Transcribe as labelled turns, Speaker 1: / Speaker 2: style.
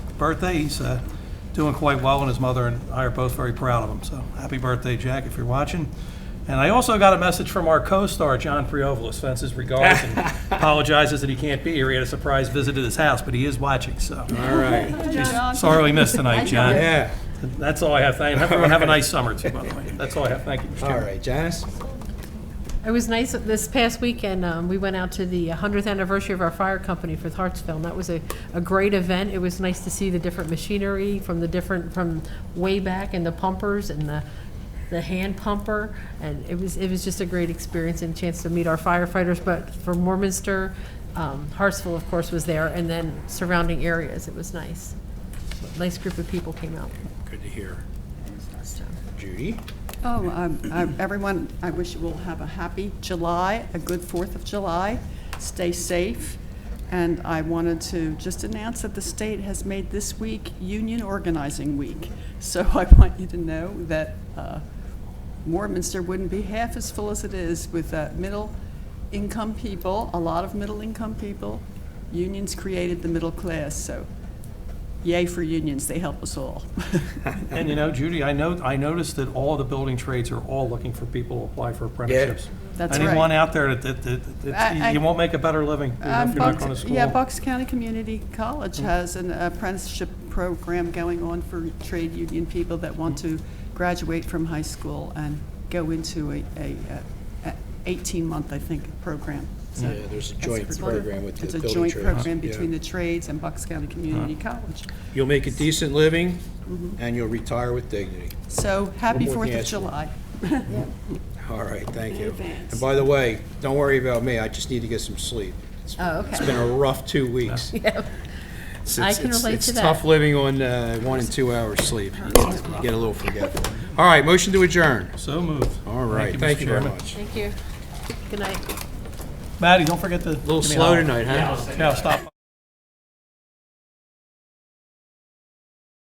Speaker 1: birthday. He's uh, doing quite well, and his mother and I are both very proud of him. So happy birthday, Jack, if you're watching. And I also got a message from our co-star, John Priovalis, sends his regards and apologizes that he can't be here. He had a surprise visit at his house, but he is watching, so.
Speaker 2: All right.
Speaker 1: He's sorely missed tonight, John.
Speaker 2: Yeah.
Speaker 1: That's all I have. Thank, everyone have a nice summer, too, by the way. That's all I have. Thank you, Mr.
Speaker 2: All
Speaker 1: Chairman.
Speaker 2: right, Janice?
Speaker 3: It was nice, this past weekend, um, we went out to the 100th anniversary of our fire company for Hartsville, and that was a, a great event. It was nice to see the different machinery from the different, from way back, and the pumpers, and the, the hand pumper, and it was, it was just a great experience and chance to meet our firefighters, but for Warminster, um, Hartsville, of course, was there, and then surrounding areas, it was nice. Nice group of people came out.
Speaker 2: Good to hear. Judy?
Speaker 4: Oh, um, I- everyone, I wish you all have a happy July, a good Fourth of July. Stay safe. And I wanted to just announce that the state has made this week Union Organizing Week. So I want you to know that uh, Warminster wouldn't be half as full as it is with uh, middle-income people, a lot of middle-income people. Unions created the middle class, so yay for unions, they help us all.
Speaker 1: And you know, Judy, I know, I noticed that all the building trades are all looking for people to apply for apprenticeships.
Speaker 4: That's
Speaker 1: Anyone
Speaker 4: right.
Speaker 1: out there that, that, that-
Speaker 4: I- I-
Speaker 1: you won't make a better living you know,
Speaker 4: Um,
Speaker 1: if you're not going to
Speaker 4: Bucks-
Speaker 1: school.
Speaker 4: Yeah, Bucks County Community College
Speaker 2: Mm.
Speaker 4: has an apprenticeship program going on for trade union people that want to graduate from high school and go into a, a, a eighteen-month, I think, program. So
Speaker 2: Yeah, there's Mm. a joint
Speaker 4: it's
Speaker 2: program with the
Speaker 4: It's
Speaker 2: building
Speaker 4: a
Speaker 2: trades.
Speaker 4: joint program
Speaker 2: Yeah.
Speaker 4: between the trades and Bucks County Community College.
Speaker 2: You'll make a decent living,
Speaker 4: Mm-hmm.
Speaker 2: and you'll retire with dignity.
Speaker 4: So, happy
Speaker 2: more
Speaker 4: Fourth
Speaker 2: thing I
Speaker 4: of
Speaker 2: asked you.
Speaker 4: July.
Speaker 2: All right, thank you. And by the way, don't worry about me, I just need to get some sleep. It's-
Speaker 3: Oh, okay.
Speaker 2: It's been a rough two weeks. It's-
Speaker 3: I
Speaker 2: it's-
Speaker 3: can
Speaker 2: it's-
Speaker 3: relate to
Speaker 2: It's
Speaker 3: that.
Speaker 2: tough living on uh, one and two hours sleep. You Get a little forgetful. All right, motion to adjourn.
Speaker 1: So moved.
Speaker 2: All right,
Speaker 1: Mr.
Speaker 2: thank you very
Speaker 1: Chairman.
Speaker 2: much.
Speaker 3: Thank you. Good night.
Speaker 1: Maddie, don't forget to. A
Speaker 2: Little slow tonight, huh?
Speaker 1: Yeah, stop.